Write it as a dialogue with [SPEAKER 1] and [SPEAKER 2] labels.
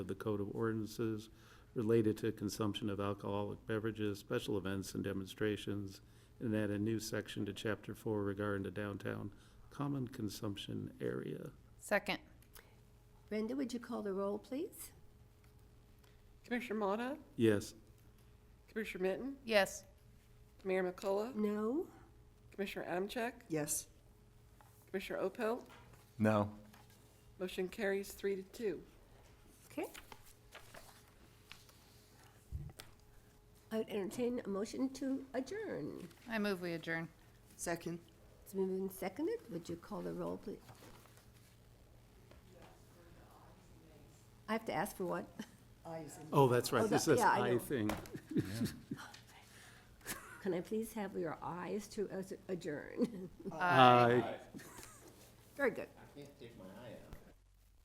[SPEAKER 1] of the Code of Ordinances related to consumption of alcoholic beverages, special events and demonstrations, and add a new section to Chapter Four regarding the downtown common consumption area.
[SPEAKER 2] Second.
[SPEAKER 3] Brenda, would you call the roll, please?
[SPEAKER 4] Commissioner Motta,
[SPEAKER 1] Yes,
[SPEAKER 4] Commissioner Mitten,
[SPEAKER 2] Yes.
[SPEAKER 4] Mayor McCullough,
[SPEAKER 3] No?
[SPEAKER 4] Commissioner Adamchek,
[SPEAKER 5] Yes.
[SPEAKER 4] Commissioner Opel.
[SPEAKER 6] No.
[SPEAKER 4] Motion carries three to two.
[SPEAKER 3] Okay. I would entertain a motion to adjourn.
[SPEAKER 2] I move we adjourn.
[SPEAKER 5] Second.
[SPEAKER 3] It's been moved and seconded. Would you call the roll, please? I have to ask for what?
[SPEAKER 5] Ayes.
[SPEAKER 1] oh, that's
[SPEAKER 3] Oh,
[SPEAKER 1] right, this
[SPEAKER 3] that-
[SPEAKER 1] is
[SPEAKER 3] yeah, I
[SPEAKER 1] I
[SPEAKER 3] know.
[SPEAKER 1] thing.
[SPEAKER 3] Can I please have your eyes to us adjourn?
[SPEAKER 1] Aye.
[SPEAKER 3] Very good.
[SPEAKER 7] Can't take my